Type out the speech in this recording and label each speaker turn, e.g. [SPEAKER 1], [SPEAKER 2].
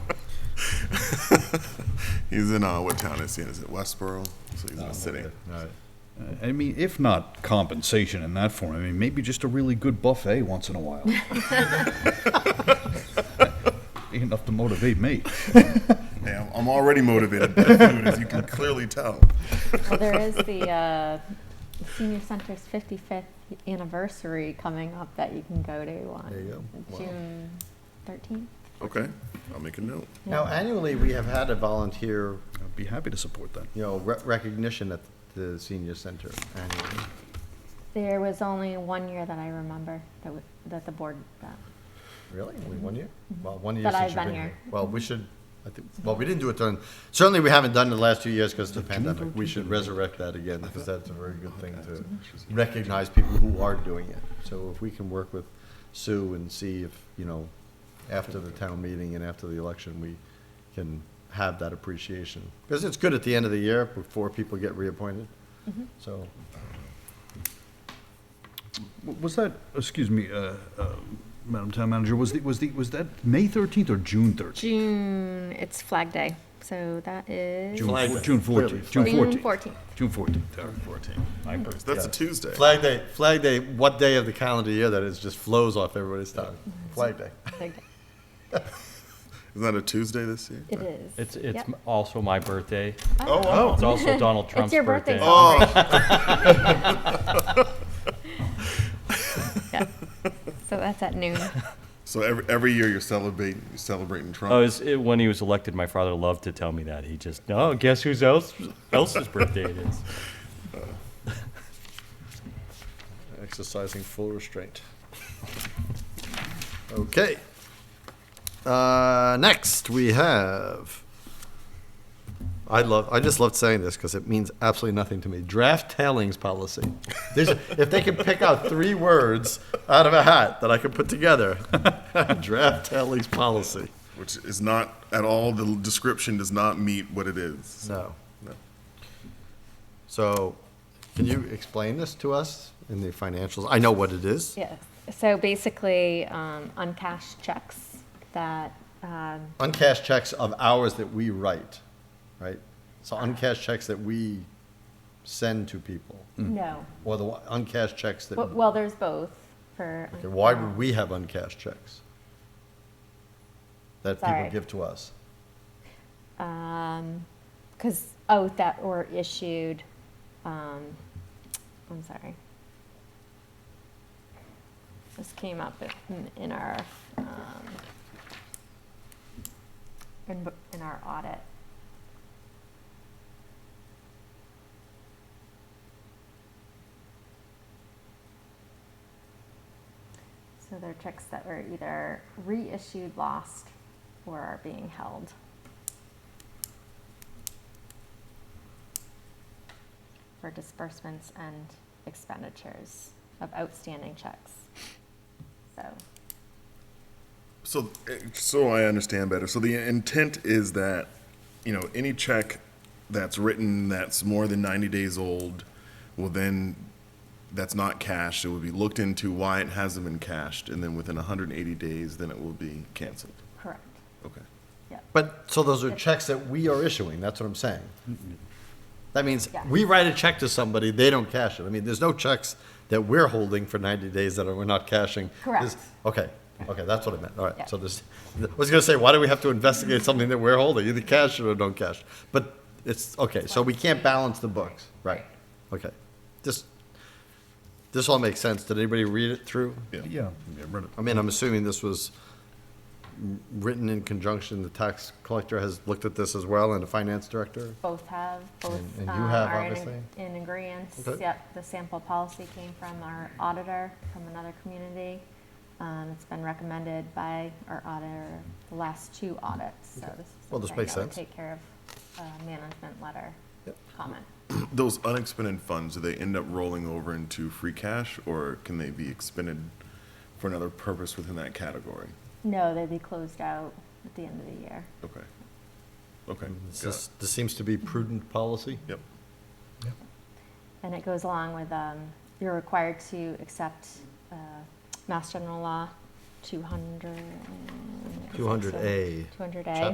[SPEAKER 1] He's in, uh, what town is he in? Is it Westboro? So he's in the city.
[SPEAKER 2] I mean, if not compensation in that form, I mean, maybe just a really good buffet once in a while. Enough to motivate me.
[SPEAKER 1] Hey, I'm, I'm already motivated by food, as you can clearly tell.
[SPEAKER 3] Well, there is the uh, senior center's 55th anniversary coming up that you can go to on June 13th.
[SPEAKER 1] Okay, I'll make a note.
[SPEAKER 4] Now, annually, we have had a volunteer,
[SPEAKER 2] I'd be happy to support that.
[SPEAKER 4] you know, re- recognition at the senior center annually.
[SPEAKER 3] There was only one year that I remember that, w- that the board that.
[SPEAKER 4] Really? Only one year? Well, one year
[SPEAKER 3] Mm-hmm. That
[SPEAKER 4] since
[SPEAKER 3] I've
[SPEAKER 4] you've
[SPEAKER 3] been
[SPEAKER 4] been
[SPEAKER 3] here.
[SPEAKER 4] here. Well, we should, I think, well, we didn't do it during, certainly we haven't done it the last two years because of the pandemic. We should resurrect that again because that's a very good thing to recognize people who are doing it. So if we can work with Sue and see if, you know, after the town meeting and after the election, we can have that appreciation. Because it's good at the end of the year before people get reappointed.
[SPEAKER 3] Mm-hmm.
[SPEAKER 4] So,
[SPEAKER 2] W- Was that, excuse me, uh, uh, Madam Town Manager, was the, was the, was that May 13th or June 13th?
[SPEAKER 3] June, it's Flag Day, so that is
[SPEAKER 2] June
[SPEAKER 4] Flag
[SPEAKER 2] four-
[SPEAKER 4] Day.
[SPEAKER 2] June 14th, June 14th.
[SPEAKER 3] 14th.
[SPEAKER 2] June 14th. all right.
[SPEAKER 1] That's a Tuesday.
[SPEAKER 4] Flag Day, Flag Day, what day of the calendar year that is, just flows off everybody's tongue.
[SPEAKER 3] Mm-hmm.
[SPEAKER 4] Flag Day.
[SPEAKER 3] Flag Day.
[SPEAKER 1] Isn't that a Tuesday this year?
[SPEAKER 3] It is.
[SPEAKER 5] It's, it's
[SPEAKER 3] Yep.
[SPEAKER 5] m- also my birthday.
[SPEAKER 1] Oh, wow. Oh.
[SPEAKER 5] It's also Donald
[SPEAKER 3] It's
[SPEAKER 5] Trump's
[SPEAKER 3] your birthday
[SPEAKER 5] birthday.
[SPEAKER 3] celebration. Yeah. So that's at noon.
[SPEAKER 1] So every, every year you're celebrating, you're celebrating Trump.
[SPEAKER 5] Oh, it's, it, when he was elected, my father loved to tell me that. He just, oh, guess whose else, else's birthday it is.
[SPEAKER 4] exercising full restraint. Okay. Uh, next, we have. I love. I just love saying this because it means absolutely nothing to me. Draft tailings policy. There's, if they could pick out three words out of a hat that I could put together, draft tailings policy.
[SPEAKER 1] Which is not at all, the description does not meet what it is.
[SPEAKER 4] No.
[SPEAKER 1] No.
[SPEAKER 4] So, can you explain this to us in the financials? I know what it is.
[SPEAKER 3] Yes. So basically, um, uncashed checks that, um,
[SPEAKER 4] uncashed checks of hours that we write, right? So uncashed checks that we send to people,
[SPEAKER 3] no.
[SPEAKER 4] or the uncashed checks that,
[SPEAKER 3] Well, well, there's both for.
[SPEAKER 4] Okay, why would we have uncashed checks? That people
[SPEAKER 3] Sorry.
[SPEAKER 4] give to us.
[SPEAKER 3] Um, cause, oh, that were issued, um, I'm sorry. This came up in, in our, um, in, in our audit. So they're checks that were either reissued, lost, or are being held. for disbursements and expenditures of outstanding checks. So,
[SPEAKER 1] So, eh, so I understand better. So the intent is that, you know, any check that's written that's more than ninety days old will then, that's not cashed, it will be looked into why it hasn't been cashed, and then within hundred and eighty days, then it will be canceled.
[SPEAKER 3] correct,
[SPEAKER 1] Okay.
[SPEAKER 3] yep.
[SPEAKER 4] But, so those are checks that we are issuing, that's what I'm saying. That means
[SPEAKER 3] Yeah.
[SPEAKER 4] we write a check to somebody, they don't cash it. I mean, there's no checks that we're holding for 90 days that are- we're not cashing.
[SPEAKER 3] Correct.
[SPEAKER 4] There's- Okay, okay, that's what I meant, all
[SPEAKER 3] Yeah.
[SPEAKER 4] right. So this, I was gonna say, why do we have to investigate something that we're holding, either cash it or don't cash? But it's, okay, so we can't balance the books, right? Okay, this, this all makes sense. Did anybody read it through?
[SPEAKER 2] Yeah, yeah, read it.
[SPEAKER 4] I mean, I'm assuming this was written in conjunction, the tax collector has looked at this as well, and the finance director?
[SPEAKER 3] Both have, both
[SPEAKER 4] And- and
[SPEAKER 3] um,
[SPEAKER 4] you have,
[SPEAKER 3] are in
[SPEAKER 4] obviously.
[SPEAKER 3] ag- in agreeance.
[SPEAKER 4] Okay.
[SPEAKER 3] Yep, the sample policy came from our auditor from another community. Um, It's been recommended by our auditor, the last two audits, so this is
[SPEAKER 4] Well, this
[SPEAKER 3] something
[SPEAKER 4] makes
[SPEAKER 3] that would
[SPEAKER 4] sense.
[SPEAKER 3] Take care of uh, management letter
[SPEAKER 4] Yep.
[SPEAKER 3] comment.
[SPEAKER 1] Those unexpended funds, do they end up rolling over into free cash, or can they be expended for another purpose within that category?
[SPEAKER 3] No, they'd be closed out at the end of the year.
[SPEAKER 1] Okay. Okay.
[SPEAKER 4] This,
[SPEAKER 1] got it.
[SPEAKER 4] is- this seems to be prudent policy.
[SPEAKER 1] Yep.
[SPEAKER 3] And it goes along with, um, you're required to accept, uh, Mass General Law two hundred.
[SPEAKER 4] 200A.
[SPEAKER 3] Two hundred A.
[SPEAKER 4] Chap-